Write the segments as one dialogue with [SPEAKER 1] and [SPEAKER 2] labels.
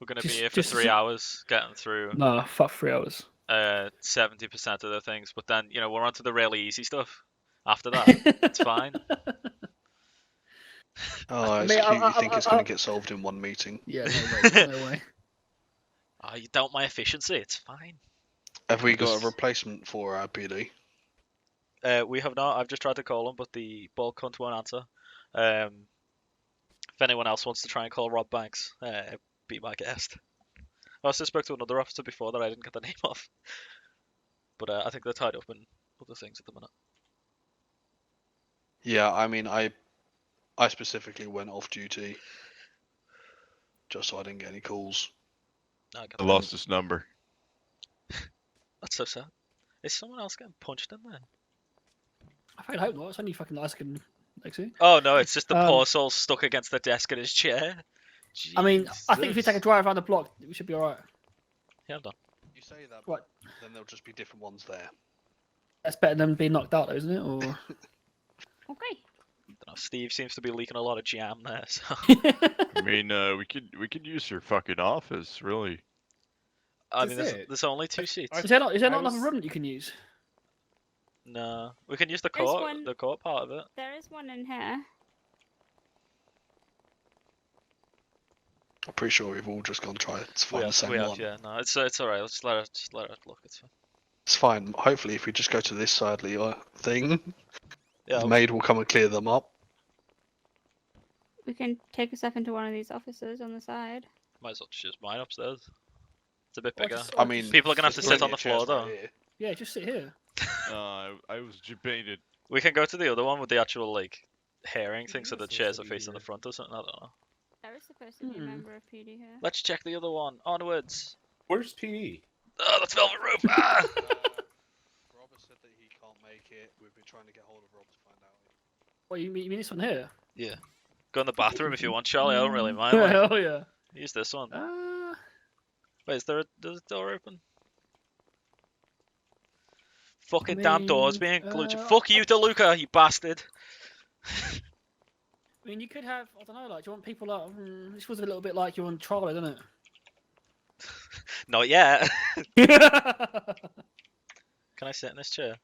[SPEAKER 1] We're gonna
[SPEAKER 2] Just-
[SPEAKER 1] be here for
[SPEAKER 2] just-
[SPEAKER 1] three hours getting through
[SPEAKER 2] No, fuck three hours.
[SPEAKER 1] uh seventy percent of the things, but then you know we're on to the really easy stuff after that.
[SPEAKER 2] it's
[SPEAKER 1] fine.
[SPEAKER 3] Oh, it's
[SPEAKER 2] mean, I-
[SPEAKER 3] cute. You
[SPEAKER 2] I-
[SPEAKER 3] think
[SPEAKER 2] I-
[SPEAKER 3] it's going
[SPEAKER 2] I-
[SPEAKER 3] to get solved in one meeting?
[SPEAKER 2] Yeah, no way. No way.
[SPEAKER 1] oh, you doubt my efficiency? It's fine.
[SPEAKER 3] Have we got
[SPEAKER 1] Just-
[SPEAKER 3] a replacement for our PD?
[SPEAKER 1] Uh, we have not. I've just tried to call him, but the ball cunt won't answer. Um, if anyone else wants to try and call Rob Banks, uh, be my guest. I also spoke to another officer before that I didn't get the name of, but uh, I think they're tied up in other things at the minute.
[SPEAKER 3] Yeah, I mean, I, I specifically went off duty, just so I didn't get any calls.
[SPEAKER 1] No, I get
[SPEAKER 4] I
[SPEAKER 1] that.
[SPEAKER 4] lost his number.
[SPEAKER 1] That's so sad. Is someone else getting punched in there?
[SPEAKER 2] I fucking hope not. It's only fucking Isaac and Lexi.
[SPEAKER 1] Oh no, it's just the
[SPEAKER 2] Um,
[SPEAKER 1] poor soul stuck against the desk in his chair.
[SPEAKER 2] I mean, I think if we take a
[SPEAKER 1] Jesus.
[SPEAKER 2] drive around the block, we should be alright.
[SPEAKER 1] yeah, I'm done.
[SPEAKER 3] You say that,
[SPEAKER 2] Right.
[SPEAKER 3] then there'll just be different ones there.
[SPEAKER 2] That's better than being knocked out, though, isn't it? Or
[SPEAKER 5] Okay.
[SPEAKER 1] Dunno, Steve seems to be leaking a lot of jam there. So.
[SPEAKER 4] I mean, uh, we could we could use your fucking office, really.
[SPEAKER 1] I
[SPEAKER 6] That's
[SPEAKER 1] mean, there's,
[SPEAKER 6] it.
[SPEAKER 1] there's only two seats.
[SPEAKER 6] I-
[SPEAKER 2] is there not is there
[SPEAKER 6] I
[SPEAKER 2] not
[SPEAKER 6] was-
[SPEAKER 2] another room that you can use?
[SPEAKER 1] No, we can use the
[SPEAKER 5] There's
[SPEAKER 1] court,
[SPEAKER 5] one-
[SPEAKER 1] the court part of it.
[SPEAKER 5] There is one in here.
[SPEAKER 3] I'm pretty sure we've all just gone try to
[SPEAKER 1] We
[SPEAKER 3] find the
[SPEAKER 1] have,
[SPEAKER 3] same
[SPEAKER 1] we have,
[SPEAKER 3] one.
[SPEAKER 1] yeah. No, it's it's all right. Let's let her just let her look. It's fine.
[SPEAKER 3] It's fine. Hopefully, if we just go to this side of your thing,
[SPEAKER 1] Yeah,
[SPEAKER 3] the maid will come and clear them up.
[SPEAKER 5] We can take a step into one of these offices on the side.
[SPEAKER 1] might as well just use mine upstairs. It's a bit
[SPEAKER 2] Or
[SPEAKER 1] bigger.
[SPEAKER 2] just-
[SPEAKER 3] I
[SPEAKER 2] or
[SPEAKER 3] mean,
[SPEAKER 2] just-
[SPEAKER 1] People are gonna have to
[SPEAKER 3] there's
[SPEAKER 1] sit on
[SPEAKER 3] plenty
[SPEAKER 1] the
[SPEAKER 3] of chairs
[SPEAKER 1] floor,
[SPEAKER 3] right
[SPEAKER 1] though.
[SPEAKER 3] here.
[SPEAKER 2] yeah, just sit here.
[SPEAKER 4] Uh, I, I was debated.
[SPEAKER 1] We can go to the other one with the actual like hearing
[SPEAKER 6] Yeah,
[SPEAKER 1] thing, so the
[SPEAKER 6] that's
[SPEAKER 1] chairs
[SPEAKER 6] also
[SPEAKER 1] are facing the
[SPEAKER 6] easier.
[SPEAKER 1] front or something. I don't know.
[SPEAKER 5] There is supposed to be a
[SPEAKER 2] Hmm.
[SPEAKER 5] member of PD here.
[SPEAKER 1] Let's check the other one. Onwards.
[SPEAKER 6] Where's PD?
[SPEAKER 1] Oh, that's Velvet Rope. Ah!
[SPEAKER 3] Uh, Robert said that he can't make it. We've been trying to get hold of Rob to find out.
[SPEAKER 2] What you mean, you mean this one here?
[SPEAKER 1] Go in the bathroom if you want, Charlie. I don't really mind. like,
[SPEAKER 2] Hell Oh, yeah.
[SPEAKER 1] use this one.
[SPEAKER 2] Uh,
[SPEAKER 1] Wait, is there a, does the door open? Fucking damn doors being
[SPEAKER 2] Maybe,
[SPEAKER 1] glued.
[SPEAKER 2] uh,
[SPEAKER 1] Fuck you, DeLuca, you bastard.
[SPEAKER 2] I mean, you could have I don't know, like do you want people like mm, this was a little bit like you're on trial, isn't it?
[SPEAKER 1] Not yet.
[SPEAKER 2] yeah,
[SPEAKER 1] Can I sit in this chair?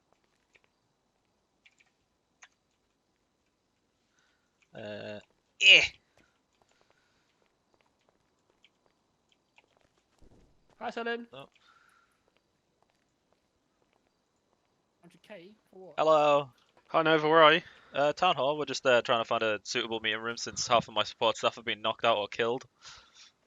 [SPEAKER 1] Uh, eh.
[SPEAKER 2] Hi, Selin.
[SPEAKER 1] No.
[SPEAKER 2] 100k for what?
[SPEAKER 1] Hello.
[SPEAKER 7] Hi Nova, where are you?
[SPEAKER 1] Uh, town hall. We're just uh, trying to find a suitable meeting room since half of my support staff have been knocked out or killed.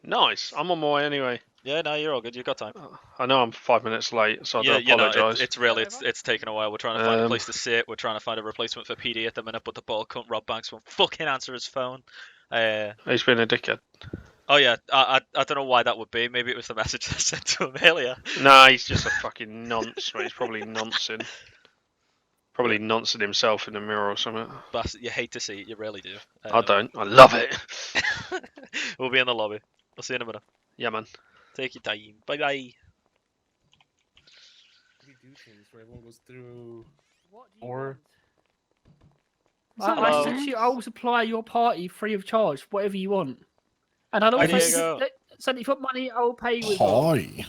[SPEAKER 7] Nice. I'm on my way anyway.
[SPEAKER 1] Yeah, no, you're all good. You've got time.
[SPEAKER 7] Uh, I know I'm five minutes late, so I
[SPEAKER 1] yeah,
[SPEAKER 7] do
[SPEAKER 1] you know, it-
[SPEAKER 7] apologise.
[SPEAKER 1] it's really it's, it's taken a while. We're trying to find a
[SPEAKER 7] Um,
[SPEAKER 1] place to sit. We're trying to find a replacement for PD at the minute, but the ball cunt Rob Banks won't fucking answer his phone. Uh,
[SPEAKER 7] He's been a dickhead.
[SPEAKER 1] oh yeah, I, I I don't know why that would be. Maybe it was the message I sent to him earlier.
[SPEAKER 7] Nah, he's just a fucking nonce, mate. He's probably noncing. Probably noncing himself in the mirror or something.
[SPEAKER 1] Bastard, you hate to see it. You really do.
[SPEAKER 7] I
[SPEAKER 1] Um,
[SPEAKER 7] don't. I love it.
[SPEAKER 1] we'll be in the lobby. I'll see you in a minute.
[SPEAKER 7] Yeah, man.
[SPEAKER 1] Take your time. Bye bye.
[SPEAKER 6] We do things where everyone goes through.
[SPEAKER 2] What do
[SPEAKER 6] Or-
[SPEAKER 5] uh,
[SPEAKER 2] want? I, I
[SPEAKER 1] Hello.
[SPEAKER 2] said to you,
[SPEAKER 5] oh.
[SPEAKER 2] I will supply your party free of charge, whatever you want. And I'll
[SPEAKER 1] There
[SPEAKER 2] also
[SPEAKER 1] you go.
[SPEAKER 2] let- so if you put money, I will pay you with.
[SPEAKER 8] Hi.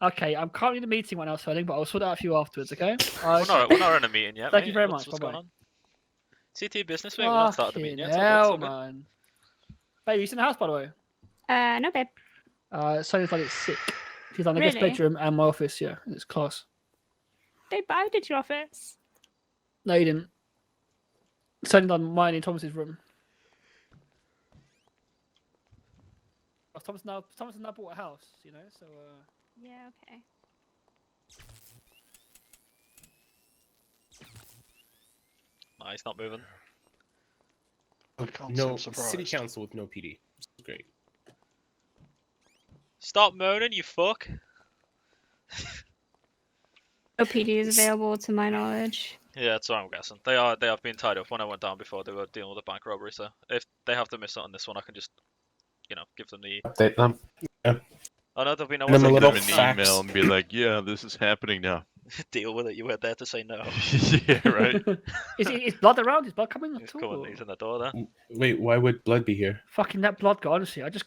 [SPEAKER 2] Okay, I'm currently in a meeting right now, Sterling, but I'll sort it out for you afterwards. Okay.
[SPEAKER 1] We're not, we're not in a meeting yet.
[SPEAKER 2] Thank
[SPEAKER 1] mate.
[SPEAKER 2] you very
[SPEAKER 1] What's- What's
[SPEAKER 2] much, bye-bye.
[SPEAKER 1] going on? CT business, mate. We're not starting the meeting yet.
[SPEAKER 2] Fucking
[SPEAKER 1] so that's
[SPEAKER 2] hell,
[SPEAKER 1] all good.
[SPEAKER 2] man. Baby, you in the house, by the way.
[SPEAKER 5] Uh, no, babe.
[SPEAKER 2] Uh, Sonya's like it's sick. She's like in the guest
[SPEAKER 5] Really?
[SPEAKER 2] bedroom and my office. Yeah, and it's class.
[SPEAKER 5] Babe, I did your office.
[SPEAKER 2] No, you didn't. Sonia done mine in Thomas's room. Oh, Thomas now. Thomas has now bought a house. You know, so. Uh...
[SPEAKER 5] Yeah, okay.
[SPEAKER 1] Nah, he's not moving.
[SPEAKER 3] I can't
[SPEAKER 6] No
[SPEAKER 3] seem
[SPEAKER 6] city
[SPEAKER 3] surprised.
[SPEAKER 6] council with no PD. It's great.
[SPEAKER 1] Stop moaning, you fuck.
[SPEAKER 5] No PD is available to my knowledge.
[SPEAKER 1] Yeah, that's what I'm guessing. They are they have been tied up. When I went down before, they were dealing with a bank robbery. So if they have to miss out on this one, I can just, you know, give them the.
[SPEAKER 6] Update them.
[SPEAKER 1] Oh no, there'll be no
[SPEAKER 6] And
[SPEAKER 1] one
[SPEAKER 6] I'm
[SPEAKER 1] to
[SPEAKER 4] Send him
[SPEAKER 6] a little
[SPEAKER 4] an
[SPEAKER 6] fax.
[SPEAKER 4] email and be like, "Yeah, this is happening now."
[SPEAKER 1] deal with it. You were there to say no.
[SPEAKER 4] yeah, right.
[SPEAKER 2] is, it- is blood around? Is blood coming
[SPEAKER 1] He's
[SPEAKER 2] at all?
[SPEAKER 1] coming. He's in the door there.
[SPEAKER 6] Wait, why would blood be here?
[SPEAKER 2] Fucking that blood guy. Honestly, I just